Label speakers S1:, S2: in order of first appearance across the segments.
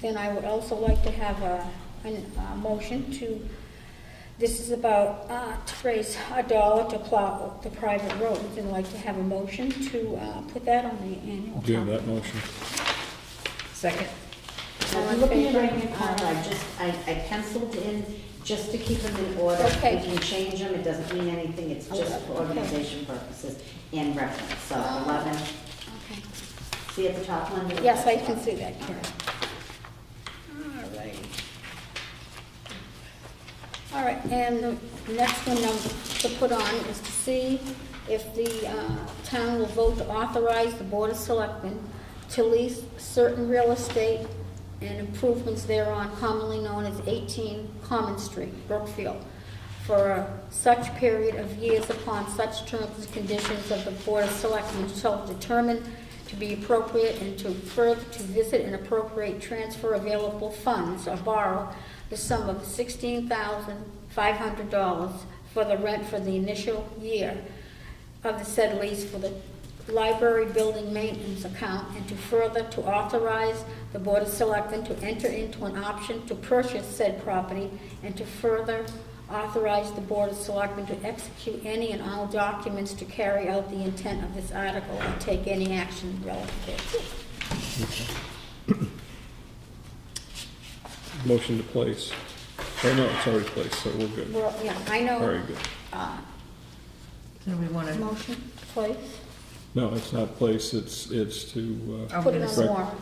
S1: Then I would also like to have a, an- a motion to, this is about, uh, to raise a dollar to plow the private roads. And like to have a motion to, uh, put that on the annual.
S2: Do you have
S1: town-
S2: that motion?
S3: Second.
S1: All
S4: I'm
S1: in
S4: looking at
S1: favor?
S4: my account, I just, I, I penciled in just to keep them in order.
S1: Okay.
S4: We can change them, it doesn't mean anything, it's just for
S1: Okay. Oh.
S4: organization purposes and reference. So 11,
S1: Okay.
S4: see at the top, Linda?
S1: Yes, I can see that, Karen. All right. All right, and the next one I'm to put on is to see if the uh, town will vote to authorize the Board of Selectmen to lease certain real estate and improvements thereon commonly known as 18 Common Street, Brookfield, for such period of years upon such terms and conditions of the Board of Selectmen shall determine to be appropriate and to further to visit and appropriate transfer available funds or borrow the sum of sixteen thousand five hundred dollars for the rent for the initial year of the said lease for the library building maintenance account and to further to authorize the Board of Selectmen to enter into an option to purchase said property and to further authorize the Board of Selectmen to execute any and all documents to carry out the intent of this article and take any action relative thereto.
S2: Motion to place. Oh, no, it's already placed, so we're good.
S1: Well, yeah, I know.
S2: Very good.
S1: uh,
S3: So we want to,
S1: Motion, please.
S2: No, it's not placed, it's, it's to, uh,
S3: I'm
S1: Put it
S3: gonna
S1: on
S2: sec-
S1: the warrant.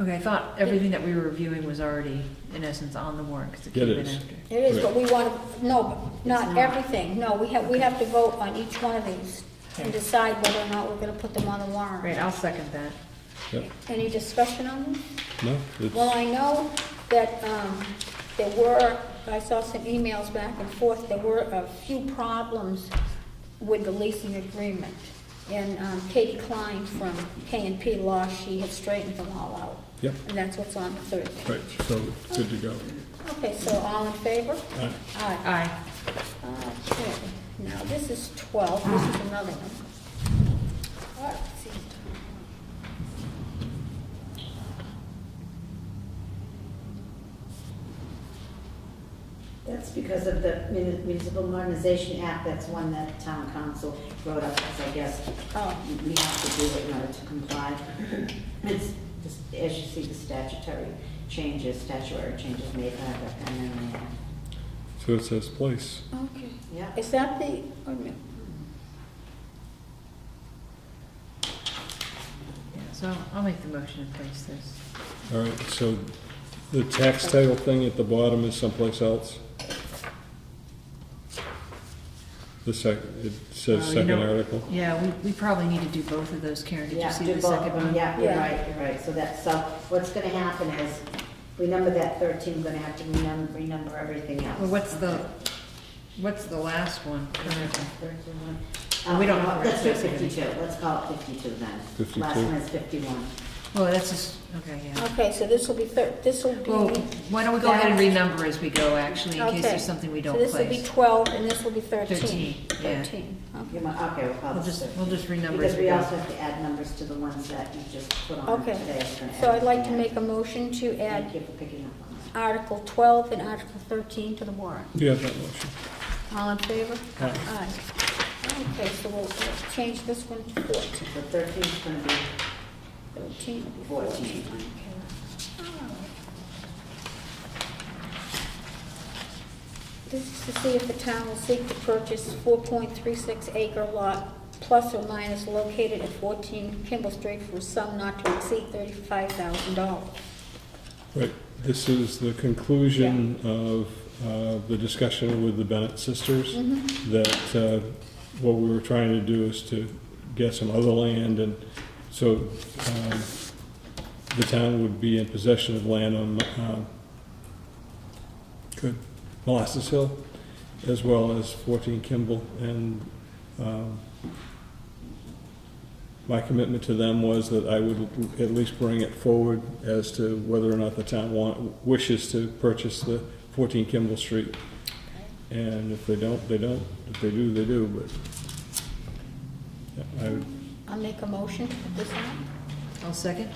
S3: okay, I thought everything that we were reviewing was already, in essence, on the warrant, because it
S2: It
S3: came in
S2: is.
S3: after.
S1: It is, but we want to, no, not
S3: not.
S1: everything, no, we have, we have to vote on each one of these and
S3: Okay.
S1: decide whether or not we're going to put them on the warrant.
S3: Right, I'll second that.
S2: yeah,
S1: Any discussion on this?
S2: no,
S1: Well,
S2: it's,
S1: I know that um, there were, I saw some emails back and forth, there were a few problems with the leasing agreement. And um, Katie Klein from K and P Law, she had straightened them all out.
S2: Yep.
S1: And that's what's on the third
S2: right,
S1: page.
S2: so good to go.
S1: Okay, so all in favor?
S2: Aye.
S1: Aye.
S3: Aye.
S1: Okay, now Uh, this is 12, this is another one. All right, let's see.
S4: That's because of the Muni- Municipal Modernization Act, that's one that town council wrote up, because I guess
S1: Oh.
S4: we have to do it in order to comply. It's, just- as you see, the statutory changes, statutory changes made by the MMA.
S2: So it says place.
S1: Okay.
S4: Yeah.
S1: Is that the, wait a minute.
S3: Yeah, So I'll make the motion to place this.
S2: All right, so the tax title thing at the bottom is someplace else? The sec, it says
S3: Uh, you
S2: second
S3: know-
S2: article?
S3: Yeah, we, we probably need to do both of those, Karen. Did
S4: Yeah,
S3: you see
S4: do
S3: the
S4: both of
S3: second
S4: them.
S3: one?
S4: Yeah, you're
S1: Yeah.
S4: right, you're right, so that's, so what's gonna happen is, we number that thirteen, we're gonna have to renumber, renumber everything else.
S3: Well, what's the, what's the last one?
S4: Uh,
S3: We don't know
S4: no,
S3: where
S4: Let's do
S3: it's gonna be.
S4: fifty-two, let's call it fifty-two then.
S2: 52.
S4: Last one is fifty-one.
S3: Well, that's just, okay, yeah.
S1: Okay, so this will be thir this will be.
S3: Well, why don't we go ahead and renumber as we go, actually, in case
S1: Okay.
S3: there's something we don't
S1: So this will be
S3: place.
S1: 12 and this will be 13.
S3: 13, yeah.
S1: 13,
S4: You
S1: okay.
S4: might, okay, we'll call
S3: We'll
S4: this
S3: just,
S4: 13.
S3: we'll just renumber as
S4: Because
S3: we
S4: we
S3: go.
S4: also have to add numbers to the ones that you just put on
S1: Okay,
S4: today. It's gonna
S1: so
S4: add
S1: I'd like to
S4: that.
S1: make a motion to
S4: Thank
S1: add
S4: you for picking up on that.
S1: Article 12 and Article 13 to the warrant.
S2: Do you have that motion?
S1: All in favor?
S2: Aye.
S1: Okay, so we'll we'll change this one to 14.
S4: So thirteen is gonna be,
S1: 13 will be 14.
S4: 14.
S1: Okay. This is to see if the town will seek to purchase 4.36 acre lot plus or minus located at 14 Kimball Street for a sum not to exceed $35,000.
S2: Right, this is the conclusion of uh, the discussion with the Bennett sisters,
S1: Mm-hmm.
S2: that uh, what we were trying to do is to get some other land, and so um, the town would be in possession of land on, um, good, Molasses Hill, as well as 14 Kimball, and um, my commitment to them was that I would at least bring it forward as to whether or not the town want, wishes to purchase the 14 Kimball Street. And if they don't, they don't. If they do, they do, but yeah, I would
S1: I'll make a motion to put this on.
S3: I'll second.